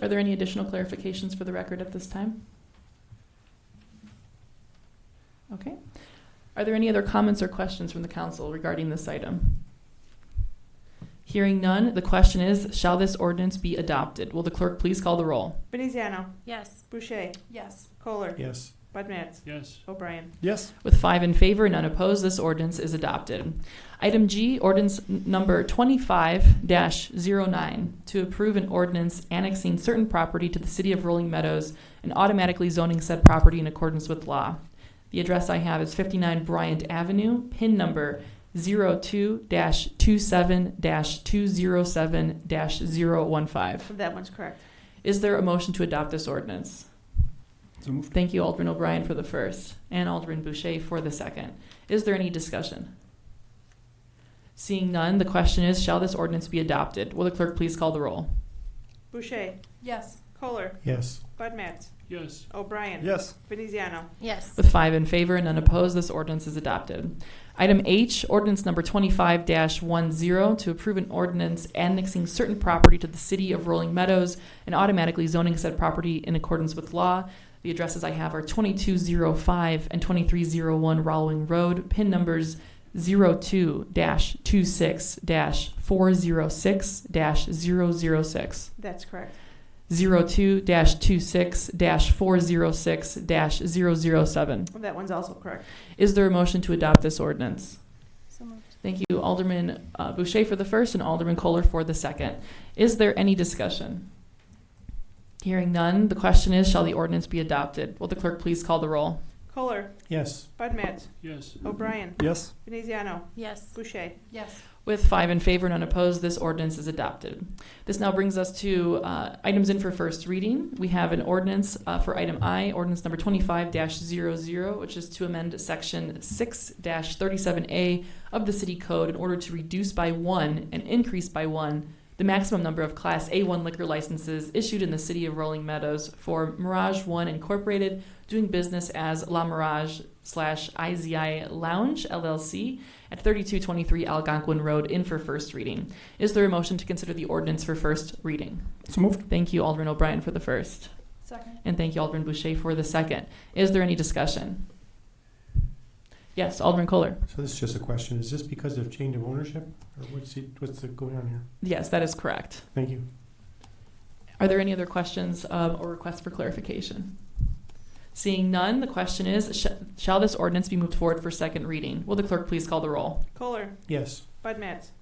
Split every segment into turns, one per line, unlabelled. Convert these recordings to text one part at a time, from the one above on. Are there any additional clarifications for the record at this time? Okay. Are there any other comments or questions from the council regarding this item? Hearing none, the question is, shall this ordinance be adopted? Will the clerk please call the roll?
Veneziano.
Yes.
Boucher.
Yes.
Kohler.
Yes.
Bud Matts.
Yes.
O'Brien.
Yes.
With five in favor and none opposed, this ordinance is adopted. Item G, ordinance n- number twenty-five 9 to approve an ordinance annexing certain property to the city of Rolling Meadows and automatically zoning said property in accordance with law. The address I have is fifty-nine Bryant Avenue, pin number 2 two-seven two-zero-seven 15
That one's correct.
Is there a motion to adopt this ordinance?
So moved.
Thank you, Alderman O'Brien, for the first, and Alderman Boucher for the second. Is there any discussion? Seeing none, the question is, shall this ordinance be adopted? Will the clerk please call the roll?
Boucher.
Yes.
Kohler.
Yes.
Bud Matts.
Yes.
O'Brien.
Yes.
Veneziano.
Yes.
With five in favor and none opposed, this ordinance is adopted. Item H, ordinance number twenty-five 10 to approve an ordinance annexing certain property to the city of Rolling Meadows and automatically zoning said property in accordance with law. The addresses I have are twenty-two zero five and twenty-three zero one Rowling Road, pin numbers 2 two-six four-zero-six 6
That's correct.
02-26-406-007.
That one's also correct.
Is there a motion to adopt this ordinance?
So moved.
Thank you, Alderman uh, Boucher for the first and Alderman Kohler for the second. Is there any discussion? Hearing none, the question is, shall the ordinance be adopted? Will the clerk please call the roll?
Kohler.
Yes.
Bud Matts.
Yes.
O'Brien.
Yes.
Veneziano.
Yes.
Boucher.
Yes.
With five in favor and unopposed, this ordinance is adopted. This now brings us to uh, items in for first reading. We have an ordinance uh, for item I, ordinance number 25-00, which is to amend Section 6-37A of the City Code in order to reduce by one and increase by one the maximum number of Class A1 liquor licenses issued in the City of Rolling Meadows for Mirage One Incorporated, doing business as La Mirage slash IZI Lounge LLC, at 3223 Algonquin Road in for first reading. Is there a motion to consider the ordinance for first reading?
So moved.
Thank you, Alderman O'Brien, for the first,
Second.
and thank you, Alderman Boucher, for the second. Is there any discussion? Yes, Alderman Kohler.
So this is just a question. Is this because of change of ownership, or what's it, what's the, going on here?
Yes, that is correct.
Thank you.
Are there any other questions um, or requests for clarification? Seeing none, the question is sh- Shall this ordinance be moved forward for second reading? Will the clerk please call the roll?
Kohler.
Yes.
Bud Matts.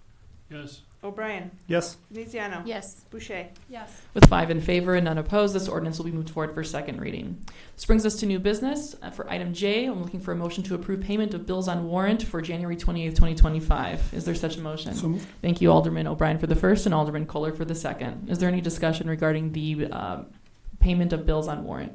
Yes.
O'Brien.
Yes.
Veneziano.
Yes.
Boucher.
Yes.
With five in favor and none opposed, this ordinance will be moved forward for second reading. This brings us to new business. Uh, For item J, I'm looking for a motion to approve payment of bills on warrant for January 28th, 2025. Is there such a motion?
So moved.
Thank you, Alderman O'Brien for the first and Alderman Kohler for the second. Is there any discussion regarding the uh, payment of bills on warrant?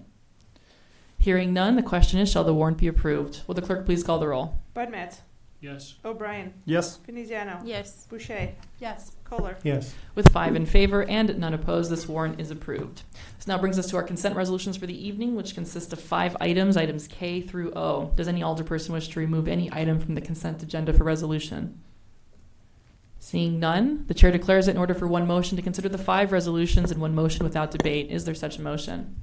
Hearing none, the question is, shall the warrant be approved? Will the clerk please call the roll?
Bud Matts.
Yes.
O'Brien.
Yes.
Veneziano.
Yes.
Boucher.
Yes.
Kohler.
Yes.
With five in favor and none opposed, this warrant is approved. This now brings us to our consent resolutions for the evening, which consist of five items, items K through O. Does any alderperson wish to remove any item from the consent agenda for resolution? Seeing none, the chair declares it in order for one motion to consider the five resolutions in one motion without debate. Is there such a motion?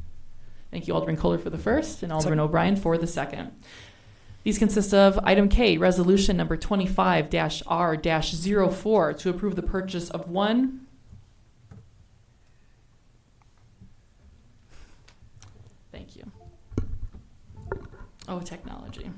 Thank you, Alderman Kohler for the first and Alderman O'Brien for the second. These consist of item K, resolution number 25-R-04 to approve the purchase of one Thank you. Oh, technology.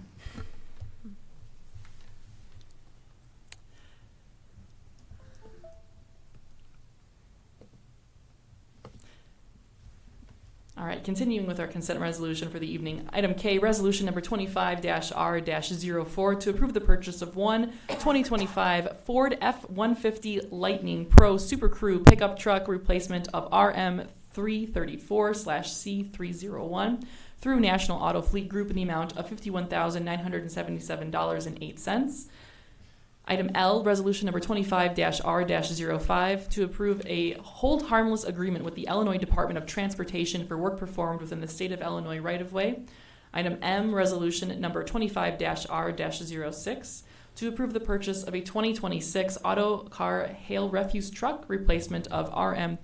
All right, continuing with our consent resolution for the evening. Item K, resolution number 25-R-04 to approve the purchase of one 2025 Ford F-150 Lightning Pro Super Crew pickup truck replacement of RM 334/C301 through National Auto Fleet Group in the amount of $51,977.08. Item L, Resolution Number 25-R-05, to approve a hold harmless agreement with the Illinois Department of Transportation for work performed within the state of Illinois right-of-way. Item M, Resolution Number 25-R-06, to approve the purchase of a 2026 auto car hail refuse truck replacement of RM